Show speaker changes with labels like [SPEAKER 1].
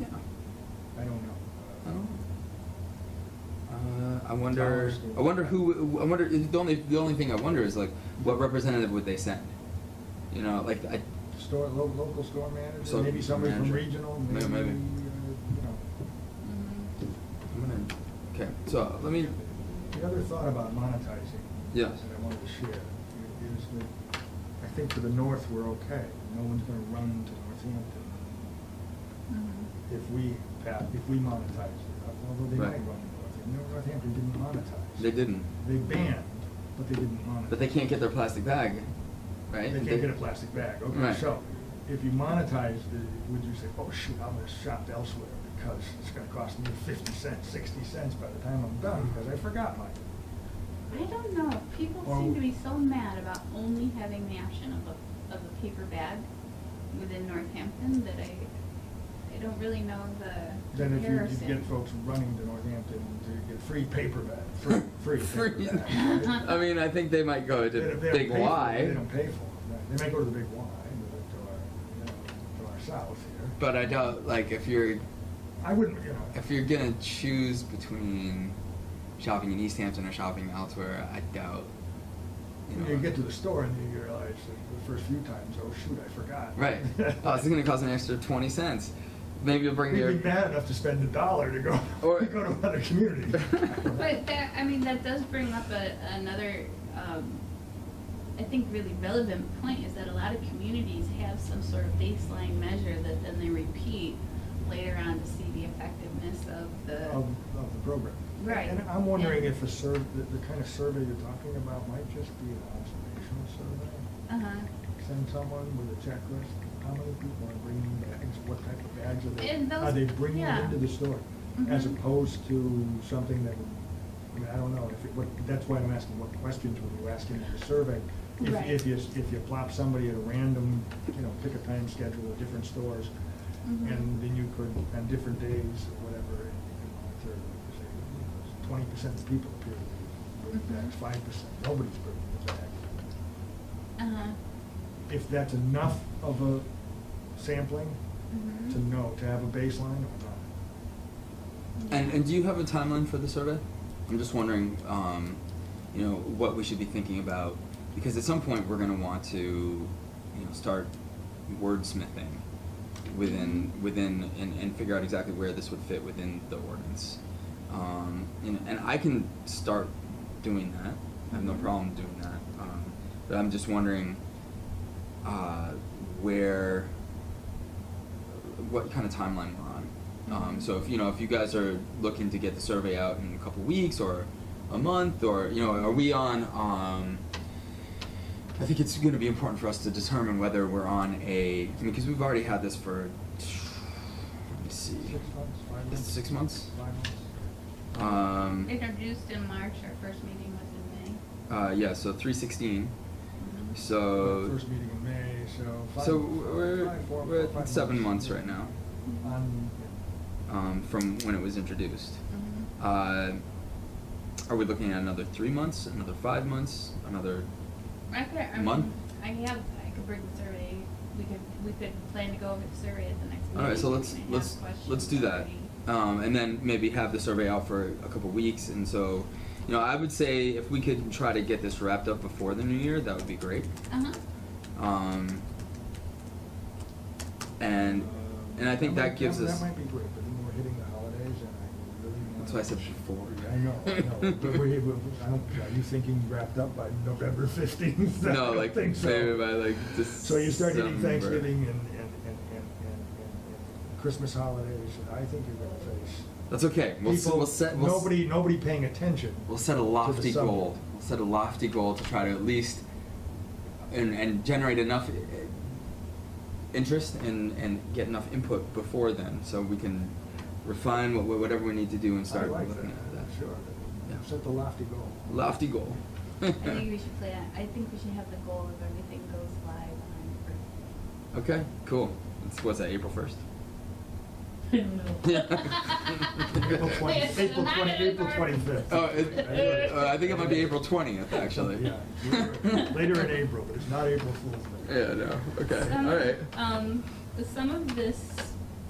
[SPEAKER 1] Yeah.
[SPEAKER 2] I don't
[SPEAKER 1] I
[SPEAKER 2] know.
[SPEAKER 1] don't know. Uh, I wonder.
[SPEAKER 2] Towers do.
[SPEAKER 1] I wonder who. I wonder. The only. The only thing I wonder is like, what representative would they send? You know, like I.
[SPEAKER 2] Store, lo- local store manager,
[SPEAKER 1] So-
[SPEAKER 2] maybe somebody from
[SPEAKER 1] manager.
[SPEAKER 2] regional,
[SPEAKER 1] May-
[SPEAKER 2] maybe, uh,
[SPEAKER 1] maybe.
[SPEAKER 2] you know.
[SPEAKER 1] I'm gonna. Okay. So let me.
[SPEAKER 2] The other thought about monetizing.
[SPEAKER 1] Yeah.
[SPEAKER 2] That I wanted to share is that I think for the north, we're okay. No one's gonna run to Northampton if we, pa- if we monetize it, although they might
[SPEAKER 1] Right.
[SPEAKER 2] run to Northampton. Northampton didn't monetize.
[SPEAKER 1] They didn't.
[SPEAKER 2] They banned, but they didn't monetize.
[SPEAKER 1] But they can't get their plastic bag, right?
[SPEAKER 2] They can't get a plastic bag, okay,
[SPEAKER 1] Right.
[SPEAKER 2] so, if you monetize, the- would you say, oh shoot, I'm gonna shop elsewhere because it's gonna cost me fifty cents, sixty cents by the time I'm done, because I forgot mine.
[SPEAKER 3] I don't know, people
[SPEAKER 2] Or-
[SPEAKER 3] seem to be so mad about only having the option of a, of a paper bag within Northampton that I, I don't really know the
[SPEAKER 2] Then if you-
[SPEAKER 3] comparison.
[SPEAKER 2] you get folks running to Northampton to get free paper bag, free, free
[SPEAKER 1] Free.
[SPEAKER 2] paper bag.
[SPEAKER 1] I mean, I think they might go
[SPEAKER 2] They
[SPEAKER 1] to
[SPEAKER 2] don't- they don't
[SPEAKER 1] Big
[SPEAKER 2] pay for it. They
[SPEAKER 1] Y,
[SPEAKER 2] don't pay for it, right. they may go to the Big Y, but to our, you know, to our south here.
[SPEAKER 1] but I doubt. Like, if you're
[SPEAKER 2] I wouldn't, you know.
[SPEAKER 1] if you're gonna choose between shopping in East Hampton or shopping elsewhere, I doubt. You know.
[SPEAKER 2] You get to the store and you realize that the first few times, oh shoot, I forgot.
[SPEAKER 1] Right. oh, this is gonna cost an extra twenty cents. Maybe you'll bring your.
[SPEAKER 2] You'd be bad enough to spend a dollar to go,
[SPEAKER 1] Or-
[SPEAKER 2] to go to another community.
[SPEAKER 3] But that, I mean, that does bring up a, another, um, I think really relevant point is that a lot of communities have some sort of baseline measure that then they repeat later on to see the effectiveness of the.
[SPEAKER 2] Of, of the program.
[SPEAKER 3] Right.
[SPEAKER 2] And I'm wondering if a survey, the, the kind of survey you're talking about might just be an observational survey.
[SPEAKER 3] Uh-huh.
[SPEAKER 2] Send someone with a checklist, how many people are bringing bags, what type of bags are
[SPEAKER 3] And
[SPEAKER 2] they,
[SPEAKER 3] those-
[SPEAKER 2] are they bringing
[SPEAKER 3] yeah.
[SPEAKER 2] into the store? As
[SPEAKER 3] Mhm.
[SPEAKER 2] opposed to something that, would- I mean, I don't know, if it, what, that's why I'm asking what questions were you asking in the survey? If,
[SPEAKER 3] Right.
[SPEAKER 2] if you, if you plop somebody at a random, you know, pick a time schedule at different stores,
[SPEAKER 3] Mhm.
[SPEAKER 2] and then you could, on different days or whatever, and you could monitor, say, twenty percent of people appear to be bringing
[SPEAKER 3] Mhm.
[SPEAKER 2] bags, five percent, nobody's bringing a bag.
[SPEAKER 3] Uh-huh.
[SPEAKER 2] If that's enough of a sampling
[SPEAKER 3] Mhm.
[SPEAKER 2] to know, to have a baseline or not.
[SPEAKER 1] And, and do you have a timeline for the survey? I'm just wondering, um, you know, what we should be thinking about, because at some point we're gonna want to, you know, start wordsmithing within, within, and, and figure out exactly where this would fit within the ordinance. Um, and, and I can start doing that, I have no problem doing that, um, but I'm just wondering, uh, where, what kind of timeline we're on. Um, so if you know if you guys are looking to get the survey out in a couple weeks or a month or you know are we on? Um, I think it's going to be important for us to determine whether we're on a. I mean, because we've already had this for. Let me see.
[SPEAKER 2] Six months, five months?
[SPEAKER 1] Six months?
[SPEAKER 2] Five months.
[SPEAKER 1] Um,
[SPEAKER 3] Introduced in March, our first meeting was in May.
[SPEAKER 1] uh, yeah. So three sixteen.
[SPEAKER 3] Mhm.
[SPEAKER 1] So.
[SPEAKER 2] Mm-hmm. First meeting in May, so five.
[SPEAKER 1] Uh, So
[SPEAKER 2] months,
[SPEAKER 1] we're,
[SPEAKER 2] five, four,
[SPEAKER 1] we're
[SPEAKER 2] five
[SPEAKER 1] at seven months right now Mm-hmm.
[SPEAKER 2] On,
[SPEAKER 1] um, from when it was introduced.
[SPEAKER 3] Mhm.
[SPEAKER 1] Uh, are we looking at another three months, another five months, another?
[SPEAKER 3] I could, I
[SPEAKER 1] Month?
[SPEAKER 3] mean, I have, I could bring the survey, we could, we could plan to go over the survey at the next meeting.
[SPEAKER 1] All right, so let's
[SPEAKER 3] and have
[SPEAKER 1] let's
[SPEAKER 3] questions
[SPEAKER 1] let's do that,
[SPEAKER 3] already.
[SPEAKER 1] um, and then maybe have the survey out for a couple weeks. And so, you know, I would say if we could try to get this wrapped up before the new year, that would be great.
[SPEAKER 3] Uh-huh,
[SPEAKER 1] Um, and and I think that
[SPEAKER 2] might-
[SPEAKER 1] gives
[SPEAKER 2] that,
[SPEAKER 1] us-
[SPEAKER 2] That might be great, but then we're hitting the holidays, and I really. want-
[SPEAKER 1] That's why I said before.
[SPEAKER 2] I know, I know. but we, we, I don't. Are you thinking wrapped up by November fifteenth?
[SPEAKER 1] no, like
[SPEAKER 2] think so.
[SPEAKER 1] maybe by like this.
[SPEAKER 2] So you start hitting Thanksgiving and, and, and, and, and, and Christmas holidays, and I think you're gonna face.
[SPEAKER 1] That's okay. We'll, s-
[SPEAKER 2] people-
[SPEAKER 1] we'll set. We'll s-
[SPEAKER 2] Nobody, nobody paying attention.
[SPEAKER 1] We'll set a lofty
[SPEAKER 2] summer.
[SPEAKER 1] goal. We'll set a lofty goal to try to at least and, and generate enough eh, interest and, and get enough input before then, so we can refine what, whatever we need to do and
[SPEAKER 2] I
[SPEAKER 1] start
[SPEAKER 2] like
[SPEAKER 1] looking at
[SPEAKER 2] that,
[SPEAKER 1] that.
[SPEAKER 2] sure.
[SPEAKER 1] Yeah.
[SPEAKER 2] Set the lofty goal.
[SPEAKER 1] Lofty goal.
[SPEAKER 3] I think we should plan, I think we should have the goal of everything goes live on Earth.
[SPEAKER 1] okay, cool. It's, what's that? April first.
[SPEAKER 2] April
[SPEAKER 1] Wait,
[SPEAKER 2] 20
[SPEAKER 3] it's
[SPEAKER 2] April
[SPEAKER 3] not
[SPEAKER 2] 20
[SPEAKER 3] in
[SPEAKER 2] April
[SPEAKER 3] our-
[SPEAKER 2] 25th.
[SPEAKER 1] Oh, it, uh, I think it might be April twentieth, actually.
[SPEAKER 2] Yeah, later in April, but it's not April Fool's Day.
[SPEAKER 1] Yeah. No. Okay.
[SPEAKER 3] Some
[SPEAKER 1] All
[SPEAKER 3] of-
[SPEAKER 1] right.
[SPEAKER 3] Um, some of this